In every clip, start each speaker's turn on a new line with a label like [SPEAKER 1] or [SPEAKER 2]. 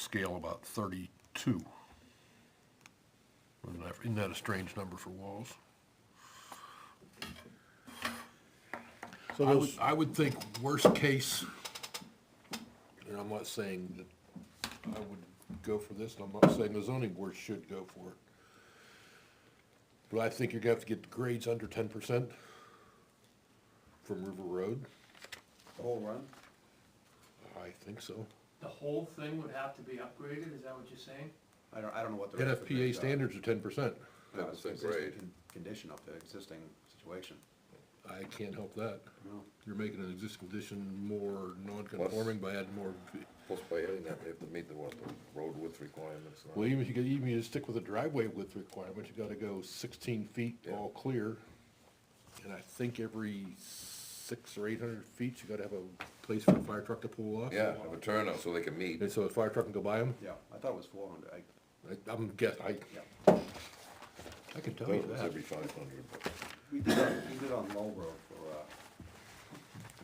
[SPEAKER 1] scale about thirty-two. Isn't that- Isn't that a strange number for walls?
[SPEAKER 2] So
[SPEAKER 1] I would,
[SPEAKER 2] those,
[SPEAKER 1] I would think worst case, and I'm not saying that I would go for this, and I'm not saying the zoning board should go for it. But I think you're gonna have to get the grades under ten percent from River Road.
[SPEAKER 3] The whole run?
[SPEAKER 1] I think so.
[SPEAKER 4] The whole thing would have to be upgraded, is that what you're saying?
[SPEAKER 3] I don't, I don't know what the. rest of the
[SPEAKER 1] NFPA
[SPEAKER 3] bids are.
[SPEAKER 1] standards are ten percent.
[SPEAKER 3] No, it's
[SPEAKER 5] That's a
[SPEAKER 3] existing
[SPEAKER 5] grade.
[SPEAKER 3] con- Condition of the existing situation.
[SPEAKER 1] I can't help that.
[SPEAKER 3] No.
[SPEAKER 1] You're making an existing condition more non-conforming by adding more, v-
[SPEAKER 5] Plus by adding that, they have to meet the, what, the road width requirements. and all.
[SPEAKER 1] well, even if you, could- even if you stick with the driveway width requirement, you gotta go sixteen feet
[SPEAKER 5] Yeah.
[SPEAKER 1] all clear. And I think every six or eight hundred feet, you gotta have a place for a fire truck to pull off.
[SPEAKER 5] Yeah, have a turnout so they can meet.
[SPEAKER 1] And so a fire truck can go by them,
[SPEAKER 3] Yeah, I thought it was four hundred, I,
[SPEAKER 1] I'm guess, I,
[SPEAKER 3] yeah.
[SPEAKER 1] I can tell you
[SPEAKER 5] Those
[SPEAKER 1] that.
[SPEAKER 5] every five hundred, but
[SPEAKER 3] We did, on- we did on Lowell Road for, uh,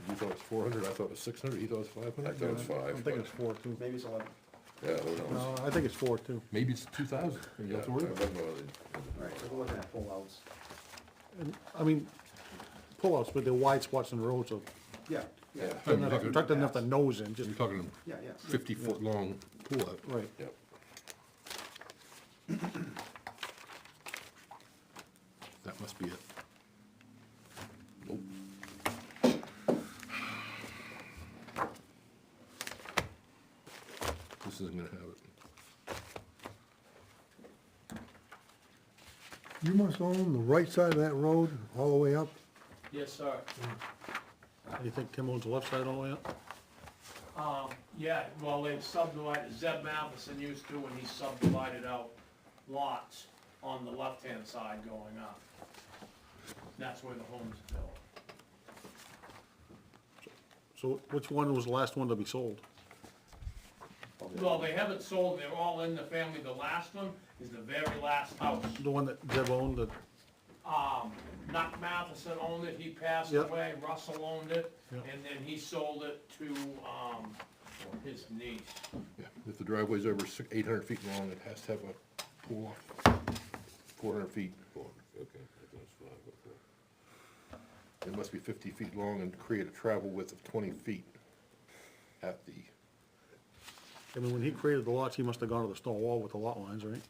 [SPEAKER 1] You thought it was four hundred, I thought it was six hundred, he thought it was five
[SPEAKER 5] I
[SPEAKER 1] hundred.
[SPEAKER 5] thought it was
[SPEAKER 2] I'm
[SPEAKER 5] five,
[SPEAKER 2] thinking
[SPEAKER 5] but,
[SPEAKER 2] it's four too.
[SPEAKER 3] maybe it's eleven,
[SPEAKER 5] yeah, who knows?
[SPEAKER 2] No, I think it's four too.
[SPEAKER 1] Maybe it's two thousand, you don't
[SPEAKER 5] Yeah, I
[SPEAKER 1] have to worry about it.
[SPEAKER 5] remember the-
[SPEAKER 3] right, so we're looking at pullouts.
[SPEAKER 2] I mean, pull-ups, but they're wide spots in the road, so
[SPEAKER 3] Yeah, yeah,
[SPEAKER 5] Yeah,
[SPEAKER 2] doesn't have to- truck doesn't have to nose in, just,
[SPEAKER 1] You're talking
[SPEAKER 3] yeah, yeah.
[SPEAKER 1] fifty-foot-long pull-up.
[SPEAKER 2] right.
[SPEAKER 5] yep.
[SPEAKER 1] That must be it. Nope. This isn't gonna have it.
[SPEAKER 6] You must own the right side of that road all the way up.
[SPEAKER 4] Yes, sir.
[SPEAKER 2] You think Tim owns the left side all the way up?
[SPEAKER 4] Um, yeah, well, they've subdivided, Zeb Matheson used to when he subdivided out lots on the left-hand side going up. That's where the homes are built.
[SPEAKER 2] So which one was the last one to be sold?
[SPEAKER 4] Well, they haven't sold, they're all in the family, the last one is the very last house.
[SPEAKER 2] The one that Deb owned, that,
[SPEAKER 4] Um, Nuck Matheson owned it, he passed
[SPEAKER 2] Yep.
[SPEAKER 4] away, Russell owned it,
[SPEAKER 2] Yep.
[SPEAKER 4] and then he sold it to, um, his niece.
[SPEAKER 1] Yeah, if the driveway's over six, eight hundred feet long, it has to have a pull-off, four hundred feet.
[SPEAKER 5] Okay, I thought it was five, okay.
[SPEAKER 1] It must be fifty feet long and create a travel width of twenty feet at the,
[SPEAKER 2] I mean, when he created the lots, he must have gone to the stone wall with the lot lines, right?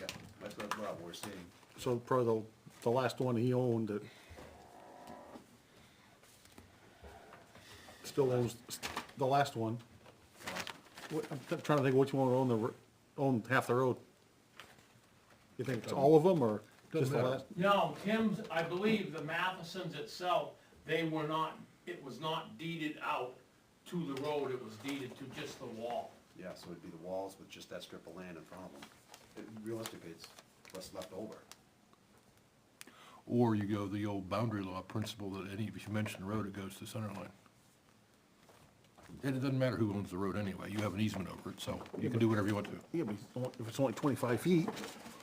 [SPEAKER 3] Yeah, that's what what we're seeing.
[SPEAKER 2] So probably the, the last one he owned that still owns, the last one. What, I'm t- trying to think which one owned the, ro- owned half the road. You think it's all of them or just
[SPEAKER 1] Doesn't
[SPEAKER 2] the
[SPEAKER 1] matter.
[SPEAKER 2] last?
[SPEAKER 4] No, Tim's, I believe the Mathesons itself, they were not, it was not deeded out to the road, it was deeded to just the wall.
[SPEAKER 3] Yeah, so it'd be the walls with just that strip of land in front of them. It- Realistically, it's what's left over.
[SPEAKER 1] or you go the old boundary law principle that any, if you mention the road, it goes to center line. And it doesn't matter who owns the road anyway, you have an easement over it, so you can do whatever you want to.
[SPEAKER 2] Yeah, but it's only- if it's only twenty-five feet,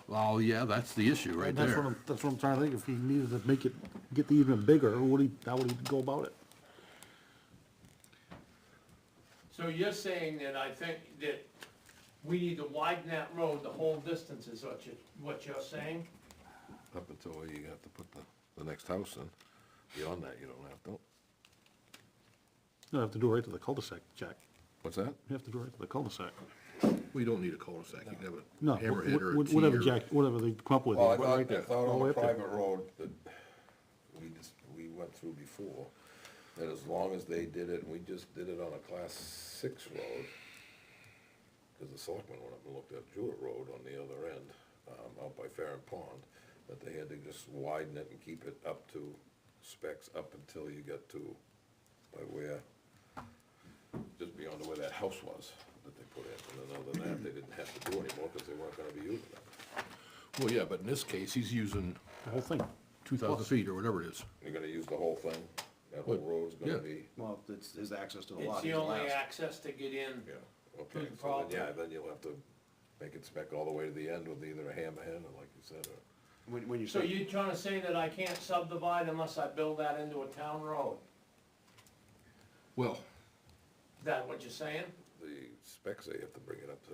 [SPEAKER 1] Well, yeah, that's the issue right
[SPEAKER 2] that's what I'm, that's what I'm trying to think. If he needed to make it, get the even bigger, would he, how would he go about it?
[SPEAKER 4] So you're saying that I think that we need to widen that road the whole distance is what you, what you're saying?
[SPEAKER 5] Up until where you have to put the, the next house in, beyond that, you don't have to,
[SPEAKER 2] You have to do it right to the cul-de-sac, Jack.
[SPEAKER 5] what's that?
[SPEAKER 2] You have to do it right to the cul-de-sac.
[SPEAKER 1] We don't need a cul-de-sac, you can have
[SPEAKER 2] No,
[SPEAKER 1] a hammerhead or a
[SPEAKER 2] wh-
[SPEAKER 1] T
[SPEAKER 2] wh- whatever
[SPEAKER 1] or-
[SPEAKER 2] Jack, whatever they come up with.
[SPEAKER 5] Well, I
[SPEAKER 2] right
[SPEAKER 5] thought, I
[SPEAKER 2] there,
[SPEAKER 5] thought
[SPEAKER 2] all the
[SPEAKER 5] on
[SPEAKER 2] way
[SPEAKER 5] a
[SPEAKER 2] up there.
[SPEAKER 5] private road that we just, we went through before, that as long as they did it, and we just did it on a class six road, because the selectmen went up and looked at Jewett Road on the other end, um, out by Farren Pond, that they had to just widen it and keep it up to specs up until you got to, by where, just beyond where that house was that they put in, and then other than that, they didn't have to do anymore, because they weren't gonna be using it.
[SPEAKER 1] Well, yeah, but in this case, he's using
[SPEAKER 2] The whole thing.
[SPEAKER 1] two thousand feet or whatever it is.
[SPEAKER 5] You're gonna use the whole thing? That whole
[SPEAKER 1] Well,
[SPEAKER 5] road's
[SPEAKER 1] yeah.
[SPEAKER 5] gonna be,
[SPEAKER 3] Well, it's, his access to the
[SPEAKER 4] It's
[SPEAKER 3] lot.
[SPEAKER 4] the
[SPEAKER 3] he's
[SPEAKER 4] only
[SPEAKER 3] last.
[SPEAKER 4] access to get in.
[SPEAKER 5] yeah,
[SPEAKER 4] Good
[SPEAKER 5] okay, so
[SPEAKER 4] problem.
[SPEAKER 5] then, yeah, then you'll have to make it spec all the way to the end with either a hammerhead or like you said, or,
[SPEAKER 3] When, when you
[SPEAKER 4] So
[SPEAKER 3] say,
[SPEAKER 4] you're trying to say that I can't subdivide unless I build that into a town road?
[SPEAKER 1] Well,
[SPEAKER 4] Is that what you're saying?
[SPEAKER 5] the specs, they have to bring it up to